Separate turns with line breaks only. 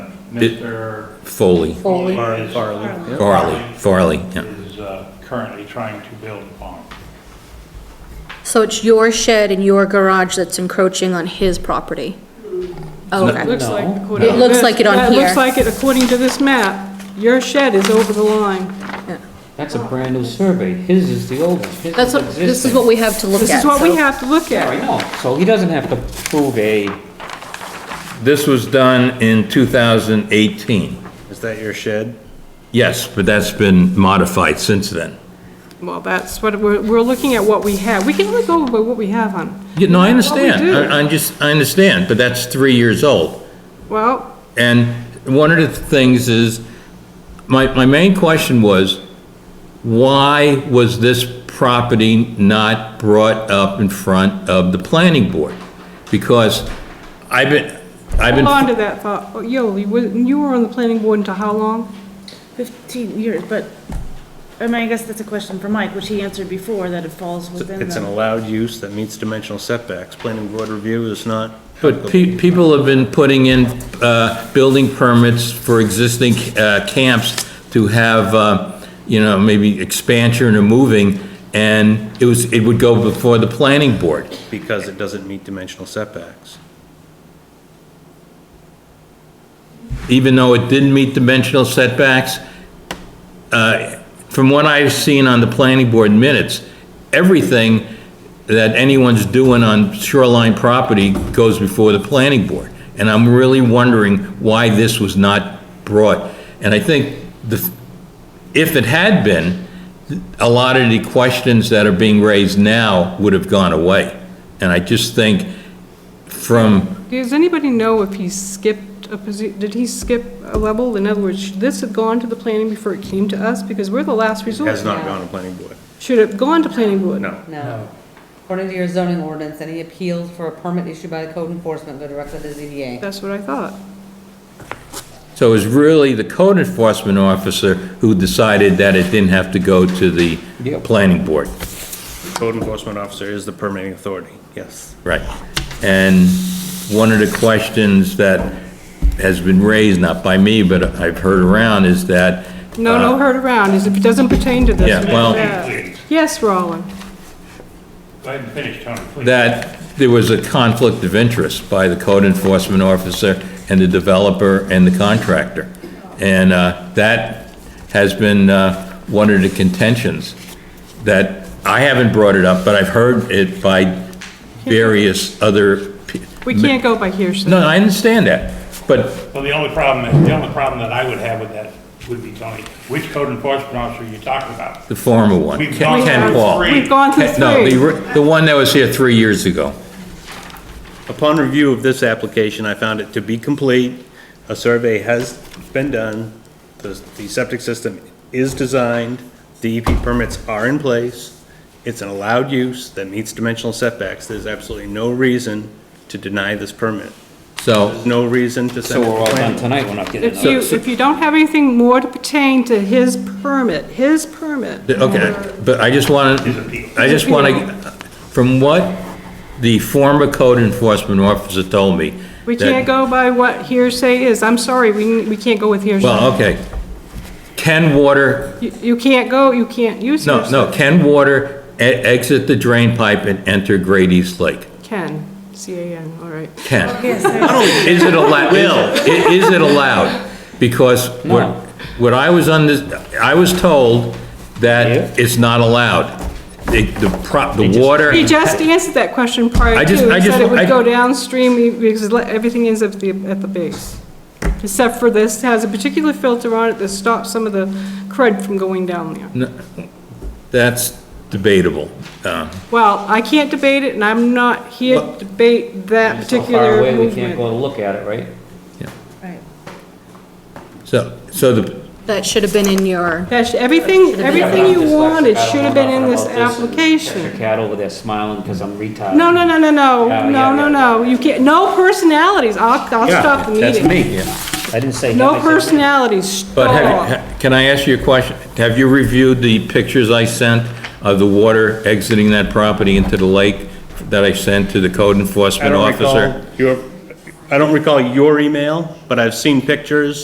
Mr.
Foley,
Foley.
Foley is-
Farley, yeah.
Farley, Farley, yeah.
Is uh, currently trying to build upon.
So it's your shed and your garage that's encroaching on his property? Okay.
Looks like
No.
according
It
to
looks
this-
like it on
It
here.
looks like it according to this map. Your shed is over the line.
That's a brand new survey. His is the old one. His
That's what, this is what we have to look at.
This is what we
so-
have to look
I
at.
know. So he doesn't have to prove a,
This was done in 2018.
Is that your shed?
Yes, but that's been modified since then.
Well, that's what, we're, we're looking at what we have. We can only go by what we have on.
Yeah, No, I understand.
do.
I- I'm just, I understand, but that's three years old.
Well,
And one of the things is, my, my main question was, why was this property not brought up in front of the planning board? Because I've been, I've been.
hold on to that thought. Oh, Yo, you were, you were on the planning board until how long?
15 years, but, I mean, I guess that's a question for Mike, which he answered before, that it falls within the...
It's an allowed use that meets dimensional setbacks. Planning board review is not.
But pe- people have been putting in uh, building permits for existing uh, camps to have, uh, you know, maybe expansion or moving, and it was, it would go before the planning board.
Because it doesn't meet dimensional setbacks.
Even though it didn't meet dimensional setbacks, uh, from what I've seen on the planning board minutes, everything that anyone's doing on shoreline property goes before the planning board. And I'm really wondering why this was not brought. And I think the, if it had been, a lot of the questions that are being raised now would have gone away. And I just think from,
Does anybody know if he skipped a posi, did he skip a level? In other words, should this have gone to the planning before it came to us? Because we're the last resort.
Has not
now.
gone to planning board.
Should it have gone to planning board?
No.
No. According to your zoning ordinance, any appeals for a permit issued by the code enforcement go directly to the ZBA.
That's what I thought.
so it was really the code enforcement officer who decided that it didn't have to go to the
Yep.
planning board.
Code enforcement officer is the permitting authority, yes.
Right. And one of the questions that has been raised, not by me, but I've heard around, is that,
No, no, heard around, is if it doesn't pertain to this.
Uh, Yeah,
we
well-
don't have. Yes, Roland.
Go ahead and finish, Tony, please.
that there was a conflict of interest by the code enforcement officer and the developer and the contractor. And uh, that has been uh, one of the contentions that, I haven't brought it up, but I've heard it by various other. pe-
We can't go by hearsay.
No, I understand that, but
Well, the only problem, the only problem that I would have with that would be, Tony, which code enforcement officer are you talking about?
The former one,
We've
Ken
gone
Ken
through
Paul.
three.
We've gone through
Ken- No, the,
three.
re- the one that was here three years ago.
Upon review of this application, I found it to be complete. A survey has been done. The, the septic system is designed. The EP permits are in place. It's an allowed use that meets dimensional setbacks. There's absolutely no reason to deny this permit.
So,
No reason
so
to send it
we're
to
all done
planning.
tonight, we're not getting
If
another.
you, if you don't have anything more to pertain to his permit, his permit.
th- okay, but I just want to, I just want to, from what the former code enforcement officer told me.
We
that-
can't go by what hearsay is, I'm sorry, we, we can't go with hearsay.
Well, okay. Ken Water,
You, you can't go, you can't use
no,
hearsay.
no, Ken Water e- exit the drain pipe and enter Great East Lake.
Can, C-A-N, all right.
Ken. Is it allowed? Is it allowed? Because what,
No.
what I was on this, I was told that it's not allowed. The, the pro, the water,
He just answered that question prior
I
to,
just- I
he
just-
said it
I-
would go downstream, he- because le- everything is at the, at the base. Except for this, has a particular filter on it that stops some of the crud from going down there.
that's debatable. Um,
Well, I can't debate it, and I'm not here to debate that
It's so far
particular
away, we can't
movement.
go to look at it, right?
So, so the,
That should have been in your,
That's, everything, everything
I'm
you
dyslexic,
wanted
I don't
should have
know
been in
nothing
this
about and There's a
application.
cat over there smiling because I'm retarded.
No, no, no, no, no,
Yeah,
no,
yeah,
no,
yeah.
no, you can't, no personalities, I'll, I'll stop the
That's
meeting.
me. I didn't say him. I
No
said me.
personalities,
but have, you-
stop.
ha- can I ask you a question? Have you reviewed the pictures I sent of the water exiting that property into the lake that I sent to the code
I
enforcement
don't
officer?
recall your, I don't recall your email, but I've seen pictures